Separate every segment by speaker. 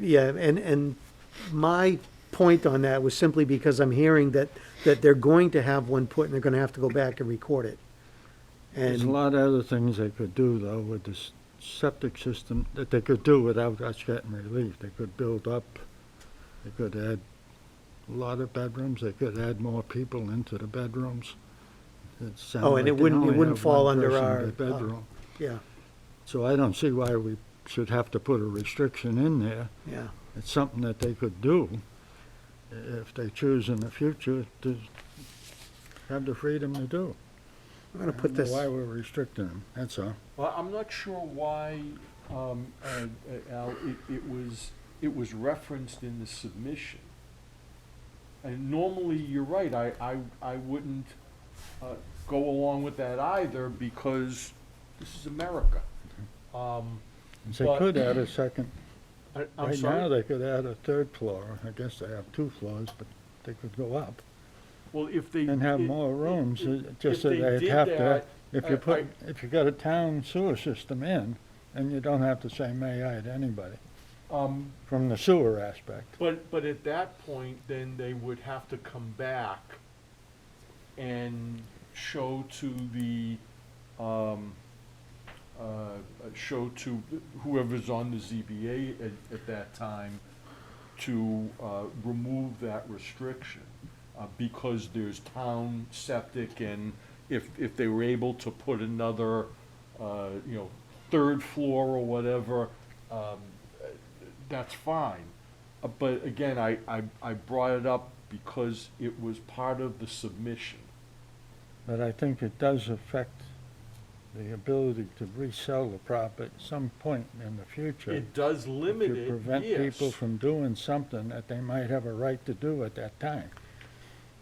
Speaker 1: yeah, and, and my point on that was simply because I'm hearing that, that they're going to have one put and they're gonna have to go back and record it.
Speaker 2: There's a
Speaker 1: And,
Speaker 2: lot of other things they could do, though, with this septic system, that they could do without us getting relief. They could build up, they could add a lot of bedrooms, they could add more people into the bedrooms. It sounded
Speaker 1: Oh, and
Speaker 2: like
Speaker 1: it
Speaker 2: they
Speaker 1: wouldn't- it
Speaker 2: only
Speaker 1: wouldn't
Speaker 2: have
Speaker 1: fall
Speaker 2: one
Speaker 1: under
Speaker 2: person
Speaker 1: our,
Speaker 2: per
Speaker 1: uh,
Speaker 2: Bedroom.
Speaker 1: yeah,
Speaker 2: So I don't see why we should have to put a restriction in there.
Speaker 1: yeah,
Speaker 2: It's something that they could do if they choose in the future to have the freedom to do.
Speaker 1: I'm gonna put
Speaker 2: I don't know
Speaker 1: this,
Speaker 2: Why we're restricting them, that's all.
Speaker 3: Well, I'm not sure why, um, uh, uh, Al, it, it was, it was referenced in the submission. And normally, you're right, I, I, I wouldn't, uh, go along with that either because this is America.
Speaker 2: Mm-hmm.
Speaker 3: Um,
Speaker 2: They
Speaker 3: But-
Speaker 2: could add a second,
Speaker 3: I,
Speaker 2: right
Speaker 3: I'm
Speaker 2: now,
Speaker 3: sorry,
Speaker 2: they could add a third floor, I guess they have two floors, but they could go up
Speaker 3: well, if they.
Speaker 2: and have
Speaker 3: it-
Speaker 2: more rooms,
Speaker 3: it-
Speaker 2: uh, just
Speaker 3: if
Speaker 2: that
Speaker 3: they
Speaker 2: they'd
Speaker 3: did
Speaker 2: have to,
Speaker 3: that,
Speaker 2: if you
Speaker 3: I-
Speaker 2: put, if you got a town sewer system in, and you don't have to say may I to anybody,
Speaker 3: Um,
Speaker 2: from the sewer aspect.
Speaker 3: But, but at that point, then they would have to come back and show to the, um, uh, uh, show to whoever's on the ZBA at, at that time to, uh, remove that restriction, uh, because there's town septic and if, if they were able to put another, uh, you know, third floor or whatever, um, that's fine. Uh, But again, I, I, I brought it up because it was part of the submission.
Speaker 2: But I think it does affect the ability to resell the property at some point in the future.
Speaker 3: It does limit
Speaker 2: To
Speaker 3: it,
Speaker 2: prevent people
Speaker 3: yes.
Speaker 2: from doing something that they might have a right to do at that time.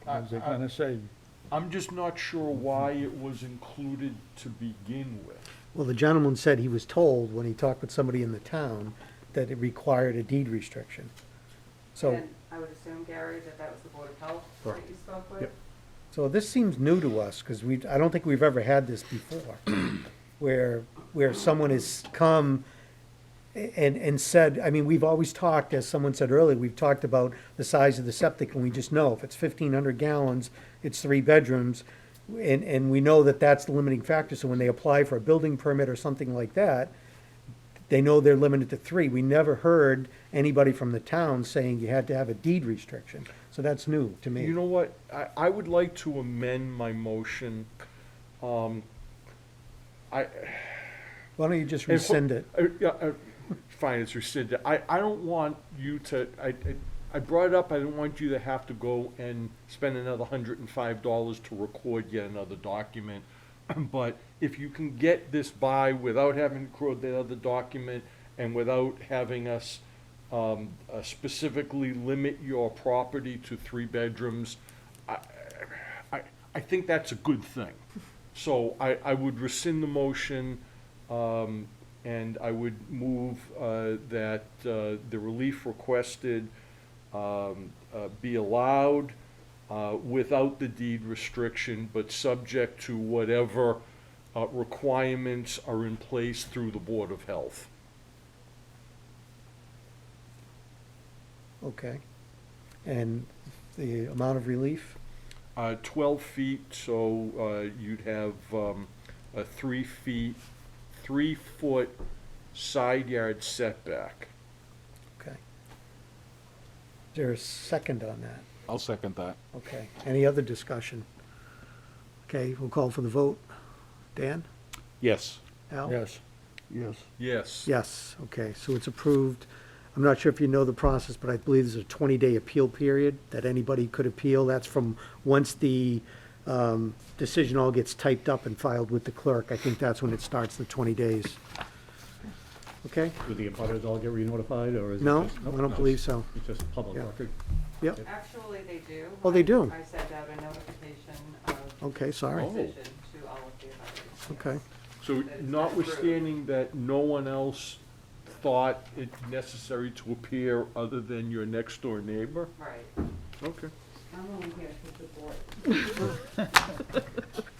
Speaker 3: I-
Speaker 2: Because they're
Speaker 3: I-
Speaker 2: gonna say,
Speaker 3: I'm just not sure why it was included to begin with.
Speaker 1: well, the gentleman said he was told when he talked with somebody in the town that it required a deed restriction. So,
Speaker 4: And I would assume, Gary, that that was the Board of Health that
Speaker 3: Correct.
Speaker 4: you spoke
Speaker 3: Yep.
Speaker 4: with?
Speaker 1: so this seems new to us, cause we, I don't think we've ever had this before. Where, where someone has come and, and said, I mean, we've always talked, as someone said earlier, we've talked about the size of the septic, and we just know if it's fifteen hundred gallons, it's three bedrooms, and, and we know that that's the limiting factor, so when they apply for a building permit or something like that, they know they're limited to three. We never heard anybody from the town saying you had to have a deed restriction, so that's new to me.
Speaker 3: You know what, I, I would like to amend my motion. Um, I,
Speaker 1: Why don't you just
Speaker 3: And for-
Speaker 1: rescind it?
Speaker 3: uh, yeah, uh, Fine, it's rescinded. I, I don't want you to, I, I- I brought it up, I didn't want you to have to go and spend another hundred and five dollars to record yet another document. But if you can get this by without having to record that other document and without having us um, uh, specifically limit your property to three bedrooms, I, I, I think that's a good thing. So I, I would rescind the motion, um, and I would move, uh, that, uh, the relief requested, um, uh, be allowed, uh, without the deed restriction, but subject to whatever, uh, requirements are in place through the Board of Health.
Speaker 1: Okay. And the amount of relief?
Speaker 3: Uh, twelve feet, so, uh, you'd have, um, a three feet, three foot side yard setback.
Speaker 1: Okay. Is there a second on that?
Speaker 5: I'll second that.
Speaker 1: Okay. Any other discussion? Okay, we'll call for the vote. Dan?
Speaker 3: Yes.
Speaker 1: Al?
Speaker 2: yes, yes.
Speaker 3: Yes.
Speaker 1: Yes, okay, so it's approved. I'm not sure if you know the process, but I believe there's a 20-day appeal period that anybody could appeal. That's from, once the um, decision all gets typed up and filed with the clerk, I think that's when it starts, the 20 days. Okay?
Speaker 6: Do the abutters all get re-notified, or is it
Speaker 1: No,
Speaker 6: just?
Speaker 1: I don't believe so.
Speaker 6: It's just public
Speaker 1: Yeah.
Speaker 6: record?
Speaker 1: Yep,
Speaker 4: Actually, they do.
Speaker 1: Oh, they
Speaker 4: I-
Speaker 1: do?
Speaker 4: I sent out a notification of
Speaker 1: okay, sorry,
Speaker 3: Oh.
Speaker 4: decision to all of the abutters.
Speaker 1: okay.
Speaker 3: So notwithstanding that no one else thought it necessary to appear other than your next door neighbor?
Speaker 4: Right.
Speaker 3: Okay.
Speaker 4: I'm only here because the board.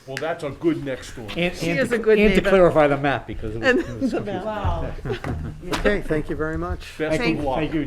Speaker 3: Well, that's a good next door.
Speaker 6: She is a good And to clarify the map, because it was- it was. confusing.
Speaker 4: Wow.
Speaker 1: Okay, thank you very much.
Speaker 3: Best of luck.
Speaker 6: Thank you,